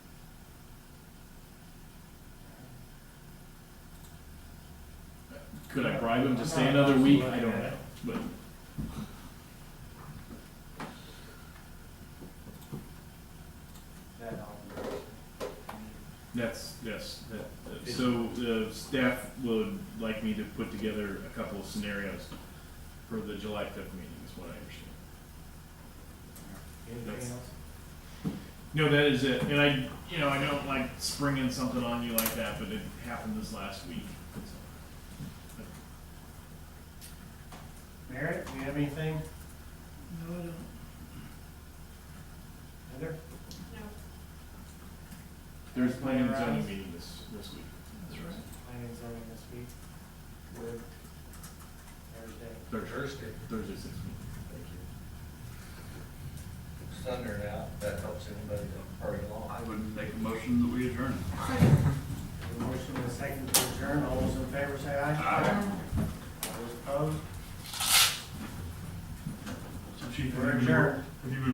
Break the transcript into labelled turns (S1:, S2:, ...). S1: Could I bribe him to stay another week? I don't know, but. That's, yes, that, uh, so the staff would like me to put together a couple of scenarios for the July fifth meeting, is what I understand.
S2: Anything else?
S1: No, that is it. And I, you know, I don't like springing something on you like that, but it happened this last week. so.
S2: Meredith, do you have anything?
S3: No, I don't.
S2: Heather?
S1: There's planning and zoning meeting this, this week.
S3: That's right.
S2: Planning and zoning this week. Word. Thursday.
S1: Thursday,
S4: Thursday,
S1: Thursday, six week.
S4: thank you. Thunder out, that helps anybody to hurry along.
S5: I would make a motion that we adjourn.
S2: The Motion and a second to adjourn. All those in favor say aye.
S5: Aye.
S2: All those opposed?
S5: So Chief,
S2: We're
S5: have you-
S2: adjourned.
S5: have you been